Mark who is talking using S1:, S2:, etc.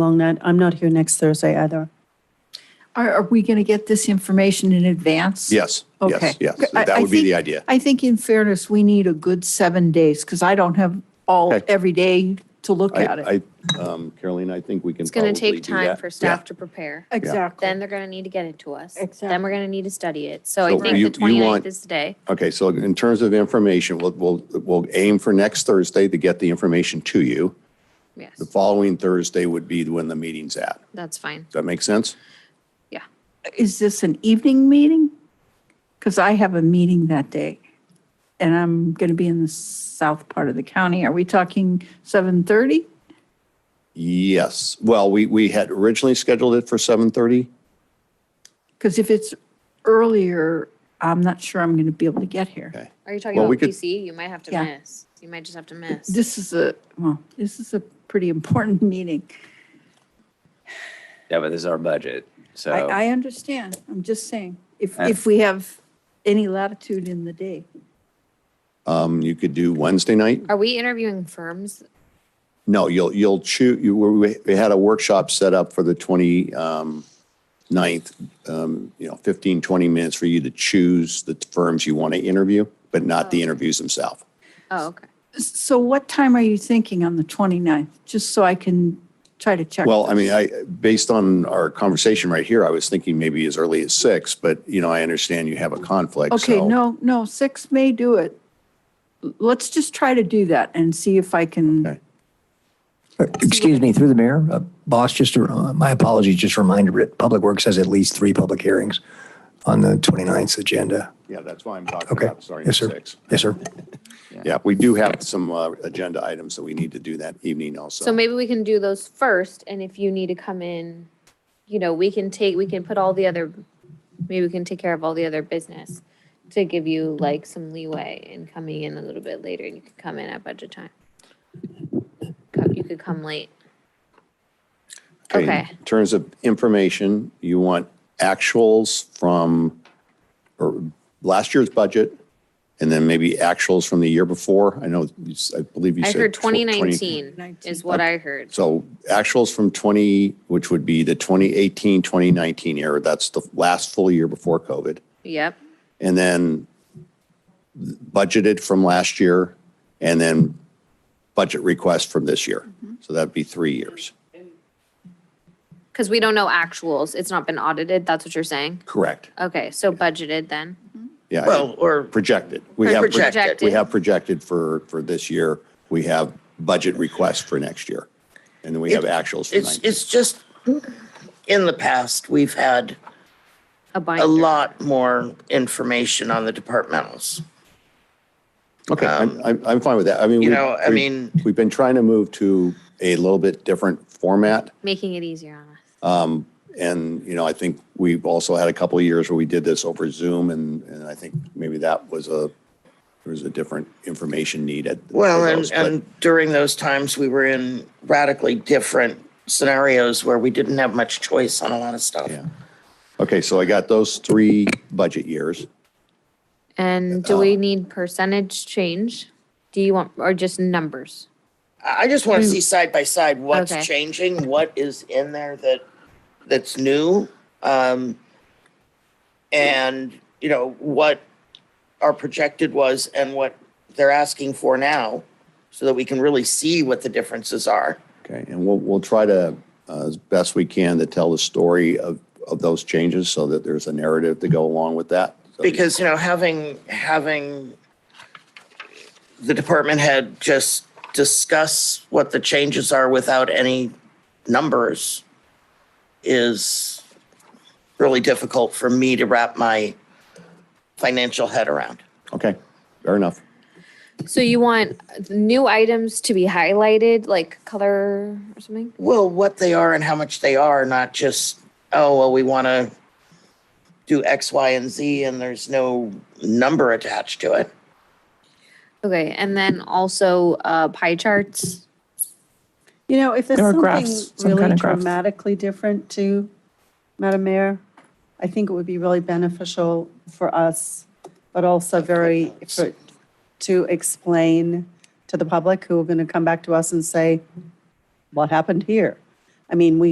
S1: along that. I'm not here next Thursday either.
S2: Are, are we going to get this information in advance?
S3: Yes,
S2: Okay.
S3: yes, yes.
S2: I-
S3: That
S2: I
S3: would be the
S2: think-
S3: idea.
S2: I think in fairness, we need a good seven days because I don't have all,
S3: Okay.
S2: every day to look at it.
S3: I, I, um, Caroline, I think we can
S4: It's going
S3: probably
S4: to
S3: do that.
S4: take time for staff to prepare. Then they're going to need to get it to us. Then
S1: Exactly.
S4: we're going to need to study it. So I
S3: So
S4: think
S3: you- you
S4: the 29th
S3: want-
S4: is today.
S3: Yeah. Okay, so in terms of information, we'll, we'll, we'll aim for next Thursday to get the information to you.
S4: Yes,
S3: The following Thursday would be when the meeting's at. Does
S4: that's fine.
S3: that make sense?
S4: Yeah.
S2: Is this an evening meeting? Because I have a meeting that day and I'm going to be in the south part of the county. Are we talking 7:30?
S3: Yes. Well, we, we had originally scheduled it for 7:30.
S2: Because if it's earlier, I'm not sure I'm going to be able to get here.
S3: Okay.
S4: Are you talking
S3: Well,
S4: about
S3: we could-
S4: PC? You might have to
S2: Yeah.
S4: miss. You might just have to miss.
S2: This is a, well, this is a pretty important meeting.
S5: Yeah, but this is our budget, so.
S2: I, I understand. I'm just saying, if,
S5: Uh,
S2: if we have any latitude in the day.
S3: Um, you could do Wednesday night.
S4: Are we interviewing firms?
S3: No, you'll, you'll choose, you, we, we had a workshop set up for the 20, um, ninth, um, you know, 15, 20 minutes for you to choose the firms you want to interview, but not the interviews themselves.
S4: Oh, okay.
S2: So what time are you thinking on the 29th? Just so I can try to check.
S3: Well, I
S2: this.
S3: mean, I, based on our conversation right here, I was thinking maybe as early as six, but you know, I understand you have a conflict.
S2: Okay,
S3: so-
S2: no, no, six may do it. L- Let's just try to do that and see if I can,
S3: Okay.
S6: Uh, Excuse me, through the mayor, uh, boss, just, a- uh, my apologies, just a reminder, but Public Works has at least three public hearings on the 29th agenda.
S3: Yeah, that's why I'm talking
S6: Okay.
S3: about starting at
S6: Yes, sir.
S3: six.
S6: Yes, sir.
S3: Yeah, we do have some, uh, agenda items that we need to do that evening also.
S4: So maybe we can do those first and if you need to come in, you know, we can take, we can put all the other, maybe we can take care of all the other business to give you like some leeway in coming in a little bit later and you can come in at budget time. Co- You could come late. okay.
S3: In terms of information, you want actuals from or last year's budget and then maybe actuals from the year before. I know, you s- I believe you
S4: I
S3: said.
S4: heard
S3: tw- 20
S4: twenty nineteen is what I heard.
S3: So actuals from 20, which would be the 2018, 2019 year, that's the last full year before COVID.
S4: Yep.
S3: And then budgeted from last year and then budget request from this year.
S4: Mm-hmm.
S3: So that'd be three years.
S4: Because we don't know actuals. It's not been audited. That's what you're saying?
S3: Correct.
S4: Okay, so budgeted then.
S3: Yeah.
S7: Well, or
S3: projected. We have, pro-
S7: Projected.
S3: we have projected for, for this year. We have budget requests for next year. And then we have actuals for
S7: it's,
S3: 19.
S7: it's just, in the past, we've had
S4: A binder.
S7: a lot more information on the departmentals.
S3: Okay, I'm, I'm, I'm fine with that. I mean.
S7: um, you
S3: we-
S7: know, I
S3: we-
S7: mean-
S3: We've been trying to move to a little bit different format.
S4: Making it easier on us.
S3: And, you know, I think we've also had a couple of years where we did this over Zoom and, and I think maybe that was a, there was a different information need at. for
S7: Well, and,
S3: those, but-
S7: and during those times, we were in radically different scenarios where we didn't have much choice on a lot of stuff.
S3: Yeah. Okay, so I got those three budget years.
S4: And do we need percentage change? Do you want, or just numbers?
S7: I I just want to see side by side what's
S4: Okay.
S7: changing, what is in there that, that's new. Um, and, you know, what our projected was and what they're asking for now, so that we can really see what the differences are.
S3: Okay, and we'll, we'll try to, uh, as best we can, to tell the story of, of those changes so that there's a narrative to go along with that. So-
S7: Because, you know, having, having the department head just discuss what the changes are without any numbers is really difficult for me to wrap my financial head around.
S3: Okay, fair enough.
S4: So you want the new items to be highlighted, like color or something?
S7: Well, what they are and how much they are, not just, oh, well, we want to do X, Y, and Z, and there's no number attached to it.
S4: Okay, and then also uh, pie charts.
S1: You know, if there's
S8: There are graphs,
S1: something
S8: some kind
S1: really
S8: of graphs.
S1: dramatically different to Madam Mayor, I think it would be really beneficial for us, but also very, for- to explain to the public who are going to come back to us and say, what happened here? I mean, we